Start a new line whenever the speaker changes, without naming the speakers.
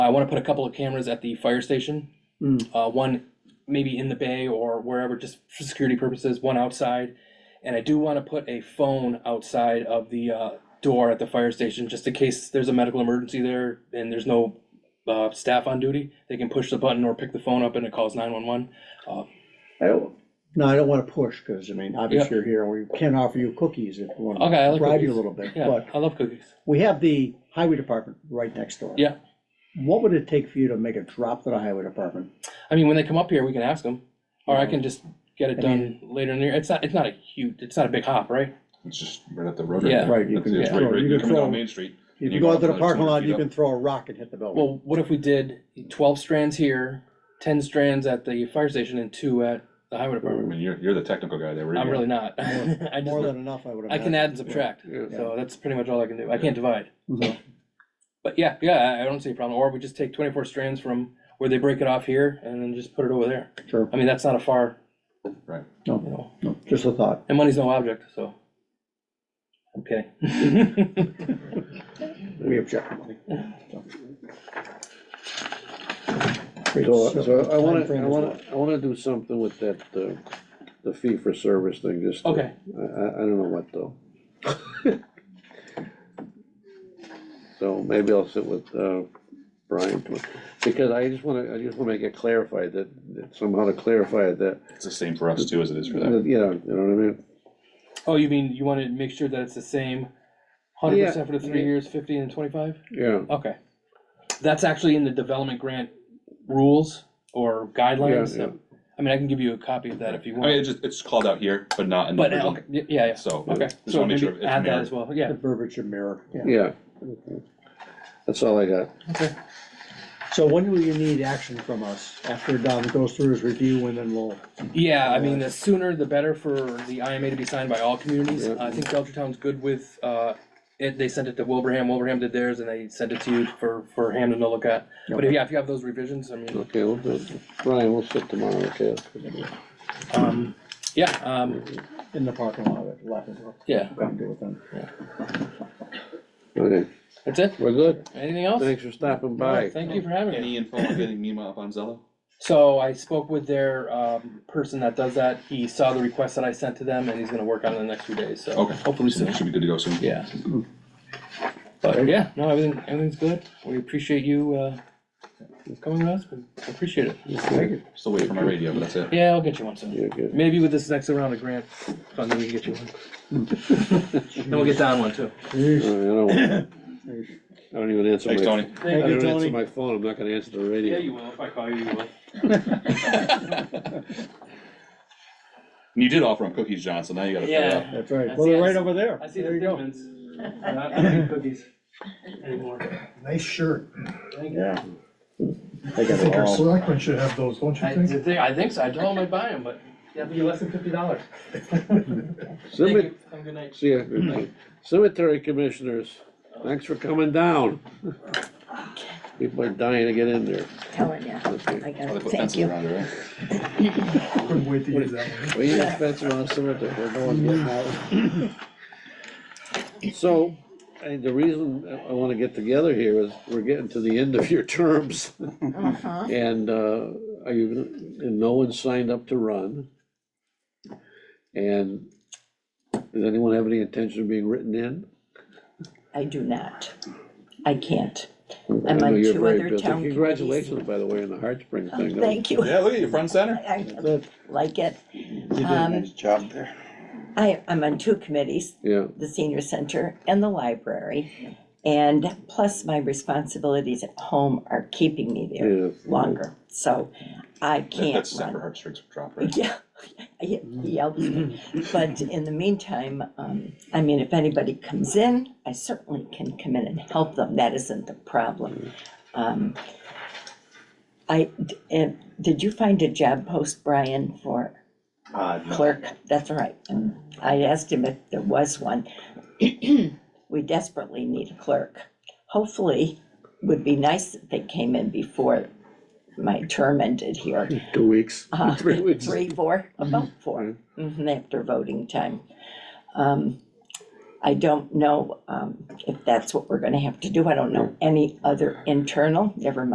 want to put a couple of cameras at the fire station.
Mm.
Uh, one maybe in the bay or wherever, just for security purposes, one outside. And I do want to put a phone outside of the uh, door at the fire station, just in case there's a medical emergency there and there's no uh, staff on duty. They can push the button or pick the phone up and it calls nine one one.
I don't, no, I don't wanna push, cause I mean, obviously you're here, and we can offer you cookies if you wanna.
Okay, I like
Bribe you a
cookies.
little bit,
Yeah,
but
I love cookies.
we have the highway department right next door.
Yeah.
What would it take for you to make a drop to the highway department?
I mean, when they come up here, we can ask them, or I can just get it
I
done later in the year. It's not, it's not a huge, it's not a big hop, right?
It's just right at the road.
Yeah.
there.
Right, you
It's-
can
it's
throw-
right- right-
you
You're
can
coming
throw-
down Main Street.
If
You
you go
go
out to the
another
parking
200
lot,
feet
you
up.
can throw a rock and hit the building.
Well, what if we did twelve strands here, ten strands at the fire station, and two at the highway
I
department?
mean, you're, you're the technical guy there. Where
I'm
you-
really not. I
More than
just,
enough, I would
I
imagine.
can add and subtract,
Yeah.
so that's pretty much all I can do. I can't divide.
Mhm.
But yeah, yeah, I- I don't see a problem. Or we just take twenty-four strands from where they break it off here and then just put it over there.
Sure,
I mean, that's not a far, you
no,
know,
no, just a thought.
and money's no object, so. I'm kidding.
We object to money.
So, so I
Timeframe
wanna, I
is
wanna,
what?
I wanna do something with that, uh, the fee for service thing, just. to-
Okay.
I, I, I don't know what though. So maybe I'll sit with, uh, Brian, because I just wanna, I just wanna make it clarified that, that somehow to clarify that,
It's the same for us too as it is for them.
that, you know, you know what I mean?
Oh, you mean you wanna make sure that it's the same, hundred percent for the three
Yeah.
years, fifty and twenty-five?
Yeah,
Okay. That's actually in the development grant rules or guidelines.
Yeah, yeah.
I mean, I can give you a copy of that if you
I mean,
want.
it's just, it's called out here, but not in the
But,
other
uh,
one.
okay, y- yeah, yeah,
So.
okay.
Just wanna
So
make sure
maybe
it's
add that
mirrored.
as well, yeah.
The verbiage and mirror, yeah.
yeah. That's all I got.
Okay.
So when will you need action from us? After Don goes through his review and then we'll,
Yeah, I mean, the sooner the better for the IMA to be signed by all communities.
Yeah.
I think Belchertown's good with, uh, it, they sent it to Wilbraham, Wilbraham did theirs, and they sent it to you for, for Hamden to look at. But if- yeah, if you have those revisions, I mean,
Okay, we'll do, Brian, we'll sit tomorrow, okay?
um, yeah, um,
in the parking lot at Lappendorf.
yeah,
Come do it then.
Okay,
that's it.
we're good.
Anything else?
Thanks for stopping
No,
by.
Thank you for having me.
Any info on getting Mima up on Zello?
So I spoke with their um person that does that. He saw the request that I sent to them and he's gonna work on it in the next few days, so.
Okay.
Hopefully soon.
Should be good to go soon.
Yeah. But yeah, no, everything, everything's good. We appreciate you uh coming with us. We Appreciate it.
Still waiting for my radio, but that's it.
Yeah, I'll get you one soon.
You're good.
Maybe with this next round of grant funding, we can get you one. Then we'll get Don one too.
I
Jeez.
don't, I don't even answer my.
Thanks, Tony.
I
Thank you,
don't answer
Tony.
my phone, I'm not gonna answer the radio.
will. If I call you, you will.
And you did offer him cookies, John, so now you gotta. uh, figure
Yeah.
out-
That's right.
I
Well,
see-
they're
I
right
see-
over there.
I see the
There you
big
go.
ones. I don't I don't eat cookies anymore.
Nice shirt.
Yeah. I
I
got
think
it
our
all.
selectmen should have those, don't
I,
you
the
think?
thing- I think so, I told him I'd buy him, but you have to be less than fifty dollars. Thank
Cemetery,
you, have a good night.
see ya. Good night. cemetery commissioners, thanks for coming down. People are dying to get in there.
telling you,
Okay.
I
Oh,
got
they
it,
put
thank
fences
you.
around it, right?
Couldn't wait to use that one.
We need fence around the cemetery, where no one's getting out. So, and the reason I- I wanna get together here is we're getting to the end of your terms.
Uh-huh.
And, uh, are you, gonna- and no one signed up to run. And does anyone have any intention of being written in?
I do not. I can't.
I
on
know you're
two
very
other
busy.
town Oh,
Congratulations, by the way, on the Hard Spring thing.
Thank you.
Yeah, look at your front center.
I
That's
like it.
You did a
Um,
nice job there.
I, I'm on two committees,
Yeah,
the senior center and the library. And plus my responsibilities at home are keeping me
Yeah.
there longer, so I
That-
can't
That's
run.
separate heartstrings drop, right?
Yeah, he
Mm.
he helps me, but in the meantime, um, I mean, if anybody comes in, I certainly can come in and help them, that isn't the
Mm.
problem. Um, I, and, did you find a job post, Brian, for
Uh, no. Mm.
clerk? That's all right, I asked him if there was one. We desperately need a clerk, hopefully, would be nice if they came in before my term ended here.
two weeks,
Uh,
three weeks.
Three, four, about four, mhm, after voting time. Um, I don't know um, if that's what we're gonna have to do. I don't know any other internal, never mind.